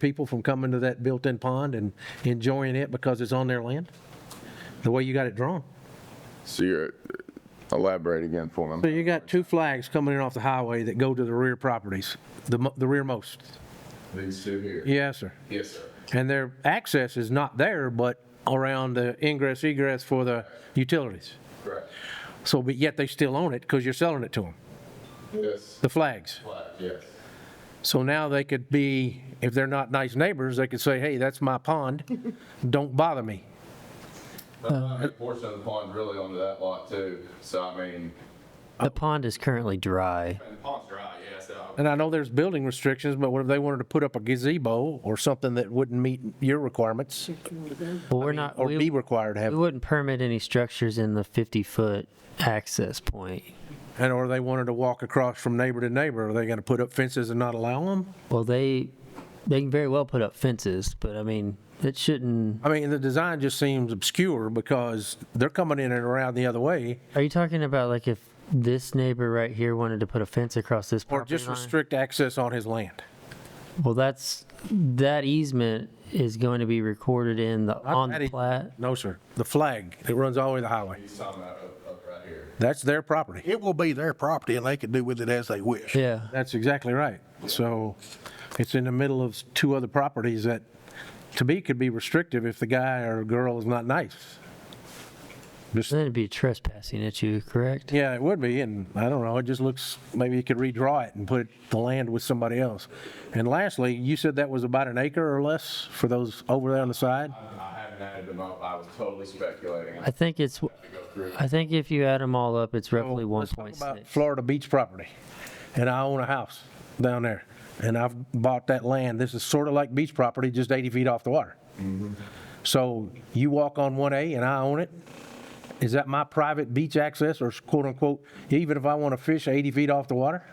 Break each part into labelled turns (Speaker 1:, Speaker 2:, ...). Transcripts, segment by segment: Speaker 1: people from coming to that built-in pond and enjoying it because it's on their land? The way you got it drawn?
Speaker 2: So you're, elaborate again for
Speaker 1: So
Speaker 2: them.
Speaker 1: you got two flags coming in off the highway that go to the rear properties, the mo- the rearmost.
Speaker 2: These two here?
Speaker 1: Yes, sir.
Speaker 2: Yes, sir.
Speaker 1: And their access is not there, but around the ingress egress for the utilities.
Speaker 2: Correct.
Speaker 1: So, but yet they still own it because you're selling it to them,
Speaker 2: Yes.
Speaker 1: the flags.
Speaker 2: Yes.
Speaker 1: So now they could be, if they're not nice neighbors, they could say, hey, that's my pond, don't bother me.
Speaker 2: Uh, A portion of the pond's really onto that lot too, so I mean.
Speaker 1: Uh,
Speaker 3: The pond is currently dry.
Speaker 2: And the pond's dry, yes, so.
Speaker 1: And I know there's building restrictions, but what if they wanted to put up a gazebo or something that wouldn't meet your requirements
Speaker 3: Well, we're not,
Speaker 1: or be
Speaker 3: we,
Speaker 1: required to
Speaker 3: we
Speaker 1: have,
Speaker 3: wouldn't permit any structures in the 50-foot access point.
Speaker 1: and or they wanted to walk across from neighbor to neighbor, are they going to put up fences and not allow them?
Speaker 3: Well, they, they can very well put up fences, but I mean, it shouldn't,
Speaker 1: I mean, the design just seems obscure because they're coming in and around the other way
Speaker 3: are you talking about like if this neighbor right here wanted to put a fence across this
Speaker 1: or
Speaker 3: property
Speaker 1: just
Speaker 3: line?
Speaker 1: restrict access on his land.
Speaker 3: Well, that's, that easement is going to be recorded in the, on
Speaker 1: that
Speaker 3: the
Speaker 1: e-
Speaker 3: plat.
Speaker 1: No, sir. The flag that runs all the way to the highway.
Speaker 2: He's talking about up, up right here.
Speaker 1: That's their property.
Speaker 4: It will be their property and they can do with it as they wish.
Speaker 3: Yeah,
Speaker 1: That's exactly right. So it's in the middle of two other properties that, to me, could be restrictive if the guy or girl is not nice. Just,
Speaker 3: then it'd be trespassing at you, correct?
Speaker 1: yeah, it would be, and I don't know, it just looks, maybe you could redraw it and put the land with somebody else. And lastly, you said that was about an acre or less for those over there on the side?
Speaker 2: I haven't added them up, I was totally speculating. I
Speaker 3: I think it's,
Speaker 2: go through.
Speaker 3: I think if you add them all up, it's roughly
Speaker 1: Let's talk about
Speaker 3: 1.6.
Speaker 1: Florida Beach property, and I own a house down there, and I've bought that land. This is sort of like beach property, just 80 feet off the water. So you walk on 1A and I own it. Is that my private beach access or quote unquote, even if I want to fish 80 feet off the water?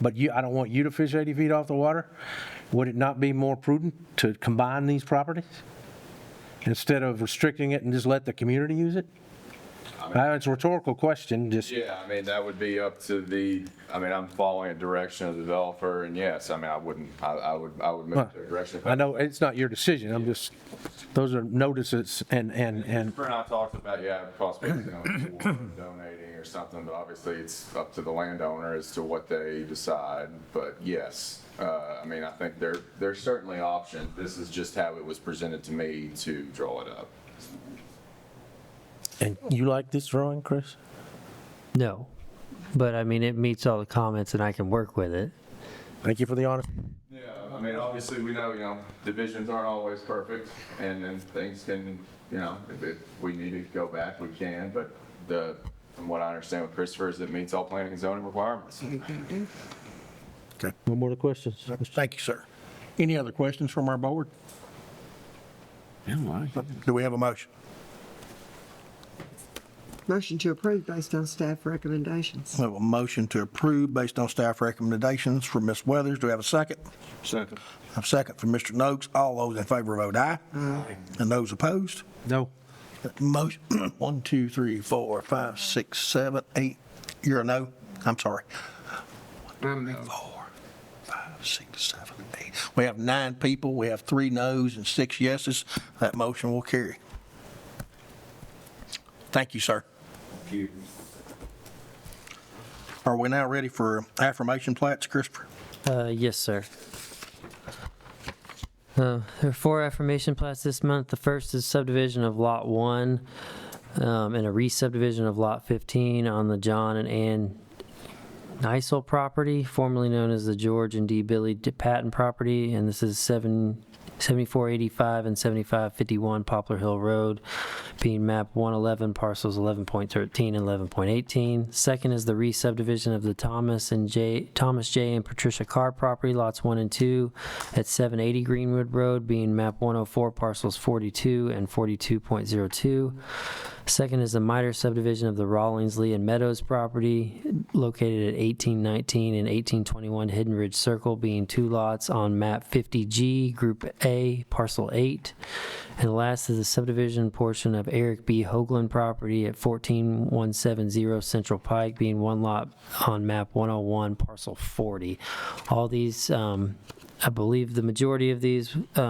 Speaker 1: But you, I don't want you to fish 80 feet off the water. Would it not be more prudent to combine these properties? Instead of restricting it and just let the community use it? Uh, It's a rhetorical question, just.
Speaker 2: Yeah, I mean, that would be up to the, I mean, I'm following a direction of the developer, and yes, I mean, I wouldn't, I, I would, I would move to a direction.
Speaker 1: I know it's not your decision, I'm just, those are notices and, and, and,
Speaker 2: Brent and I talked about, yeah, possibly you know, for donating or something, but obviously it's up to the landowner as to what they decide. But yes, uh, I mean, I think there, there's certainly options. This is just how it was presented to me to draw it up.
Speaker 1: and you like this drawing, Chris?
Speaker 3: No, but I mean, it meets all the comments and I can work with it.
Speaker 1: Thank you for the honest.
Speaker 2: Yeah, I mean, obviously, we know, you know, divisions aren't always perfect, and then things can, you know, if it- we need to go back, we can, but the, from what I understand with Christopher, is it meets all planning and zoning requirements.
Speaker 1: No more questions?
Speaker 4: Thank you, sir. Any other questions from our board? Do we have a motion?
Speaker 5: Motion to approve based on staff recommendations.
Speaker 4: We have a motion to approve based on staff recommendations from Ms. Weathers. Do we have a second?
Speaker 2: Second.
Speaker 4: A second from Mr. Noakes. All those in favor vote aye. And those opposed?
Speaker 1: No.
Speaker 4: Motion, one, two, three, four, five, six, seven, eight. You're a no? I'm sorry. Four, five, six, seven, eight. We have nine people. We have three noes and six yeses. That motion will carry. Thank you, sir. Are we now ready for affirmation plats, Christopher?
Speaker 3: Uh, yes, sir. Uh, there are four affirmation plats this month. The first is subdivision of Lot 1 um, and a re-subdivision of Lot 15 on the John and Ann Nisel property, formerly known as the George and D. Billy D- Patton property, and this is 7 7485 and 7551 Poplar Hill Road, being map 111, parcels 11.13 and 11.18. Second is the re-subdivision of the Thomas and J. Thomas J. and Patricia Carr property, lots 1 and 2, at 780 Greenwood Road, being map 104, parcels 42 and 42.02. Second is the miter subdivision of the Rawlings, Lee, and Meadows property located at 1819 and 1821 Hidden Ridge Circle, being two lots on map 50G, Group A, Parcel 8. And last is the subdivision portion of Eric B. Hoagland property at 14170 Central Pike, oh being one lot on map 101, Parcel 40. All these um, I believe the majority of these, uh,